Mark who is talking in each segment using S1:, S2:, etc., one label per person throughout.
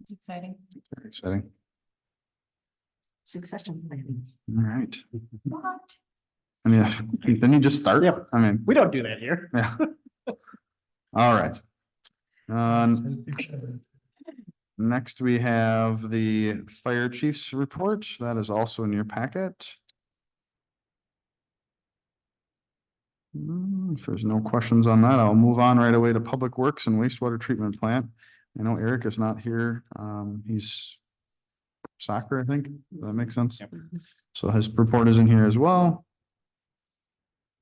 S1: It's exciting.
S2: Very Exciting.
S3: Succession planning.
S2: All right.
S1: What?
S2: And yeah, then you just start.
S4: Yeah.
S2: I mean,
S4: We don't do that here.
S2: yeah. All right. Um, next we have the fire chief's report. That is also in your packet. Hmm, If there's no questions on that, I'll move on right away to Public Works and Wastewater Treatment Plant. I know Eric is not here. Um, he's soccer, I think. Does that make sense?
S4: Yep.
S2: So his report is in here as well.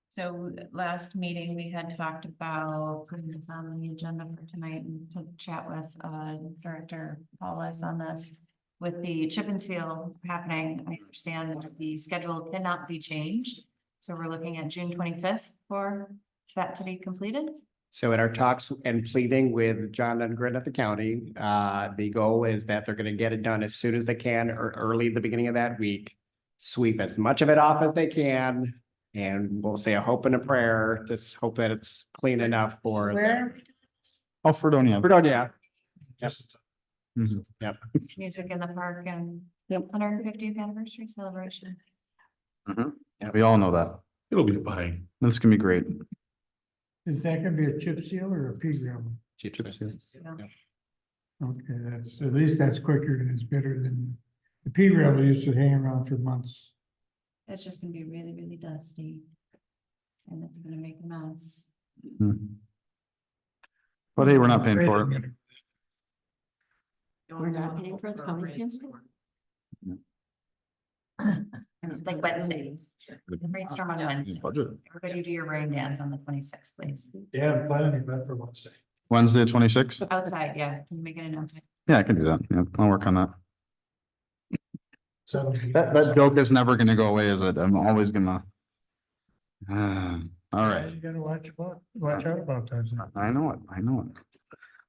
S1: So last meeting, we had talked about putting this on the agenda for tonight and to chat with uh Director Paulus on this. With the chip and seal happening, I understand that the schedule cannot be changed. So we're looking at June twenty-fifth for that to be completed.
S4: So in our talks and pleading with John Lundgren at the county, uh, the goal is that they're gonna get it done as soon as they can or early the beginning of that week. Sweep as much of it off as they can and we'll say a hope and a prayer, just hope that it's clean enough for. the-
S1: Where
S2: Oh, Fredonia.
S4: Fredonia. Yep.
S2: Mhm.
S1: music in the park and
S4: Yep.
S1: hundred fiftieth anniversary celebration.
S2: We all know that.
S5: It'll be fine.
S2: That's gonna be great.
S6: Is that gonna be a chip seal or a P gum?
S1: So
S6: Okay, that's, at least that's quicker and it's better than, the P gravel used to hang around for months.
S1: It's just gonna be really, really dusty. And it's gonna make a mess.
S2: Hmm. But hey, we're not paying for it.
S3: We're not paying for the county council.
S1: It's like Wednesday, brainstorm on Wednesday.
S2: Budget.
S1: Everybody do your rain dance on the twenty-sixth, please.
S6: Yeah, I'm planning that for Wednesday.
S2: Wednesday, twenty-six?
S1: Outside, yeah, can you make an announcement?
S2: Yeah, I can do that. Yeah, I'll work on that.
S6: So.
S2: That, that joke is never gonna go away, is it? I'm always gonna. Ah, All right.
S6: You gotta watch, about- watch out about those.
S2: I know it, I know it.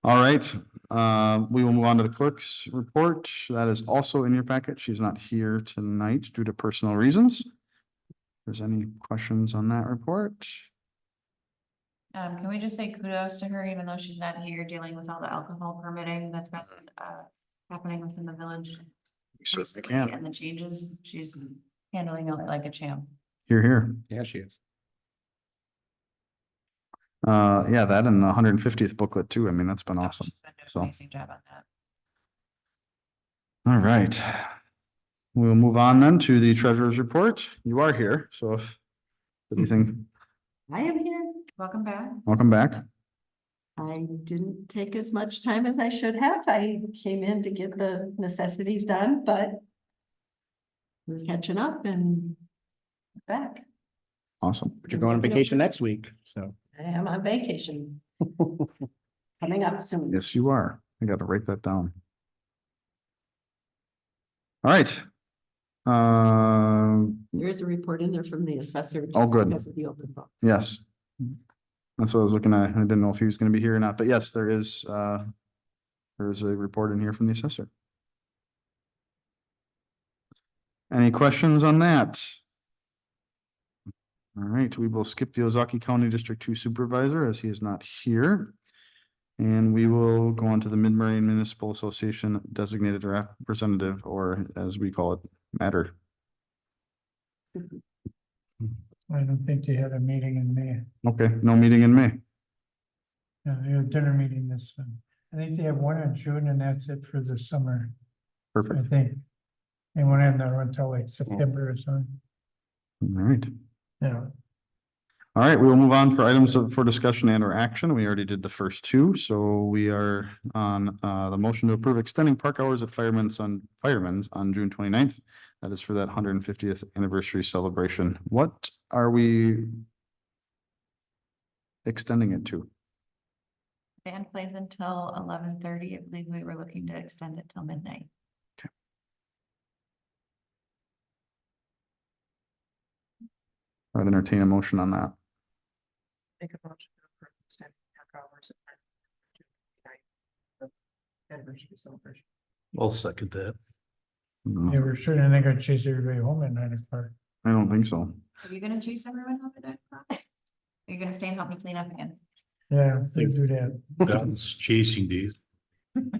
S2: All right, uh, we will move on to the clerk's report. That is also in your packet. She's not here tonight due to personal reasons. There's any questions on that report?
S1: Um, can we just say kudos to her, even though she's not here dealing with all the alcohol permitting that's been, uh, happening within the village?
S2: We Certainly
S1: recently,
S2: can.
S1: And the changes, she's handling it like a champ.
S2: Here, here.
S4: Yeah, she is.
S2: Uh, yeah, that and the hundred and fiftieth booklet too. I mean, that's been awesome.
S1: She's been doing
S2: So-
S1: an Amazing job on that.
S2: All right. We'll move on then to the treasurer's report. You are here, so if anything,
S3: I am here.
S1: Welcome back.
S2: welcome back.
S3: I didn't take as much time as I should have. I came in to get the necessities done, but we're catching up and back.
S2: Awesome.
S4: But you're going on vacation next week, so.
S3: I am on vacation. Coming up soon.
S2: Yes, you are. I gotta write that down. All right. Um,
S3: There is a report in there from the assessor. just
S2: All Oh, good.
S3: Because of the open book.
S2: yes. That's what I was looking at. I didn't know if he was gonna be here or not, but yes, there is, uh, there is a report in here from the assessor. Any questions on that? All right, we will skip the Ozaki County District Two Supervisor as he is not here. And we will go on to the Mid-Merion Municipal Association Designated Representative, or as we call it, matter.
S6: I don't think they had a meeting in May,
S2: Okay, no meeting in May.
S6: No, they had a dinner meeting this, um, I think they have one in June and that's it for the summer, I
S2: Perfect.
S6: think. They won't have that until like September or something,
S2: All right.
S6: yeah.
S2: All right, we will move on for items of- for discussion and or action. We already did the first two, so we are on uh the motion to approve extending park hours at Fireman's on Fireman's on June 29th. That is for that hundred and fiftieth anniversary celebration. What are we extending it to?
S1: Band plays until eleven thirty. I believe we were looking to extend it till midnight.
S2: I'd entertain a motion on that.
S7: Make a motion to approve extended half hours. of Anniversary celebration.
S5: I'll second that.
S6: They
S2: No,
S6: were certainly not gonna chase everybody home at nine o'clock.
S2: I don't think so.
S1: Are you gonna chase everyone home at nine o'clock? Are you gonna stay and help me clean up again?
S6: Yeah, they do that.
S5: That's chasing days.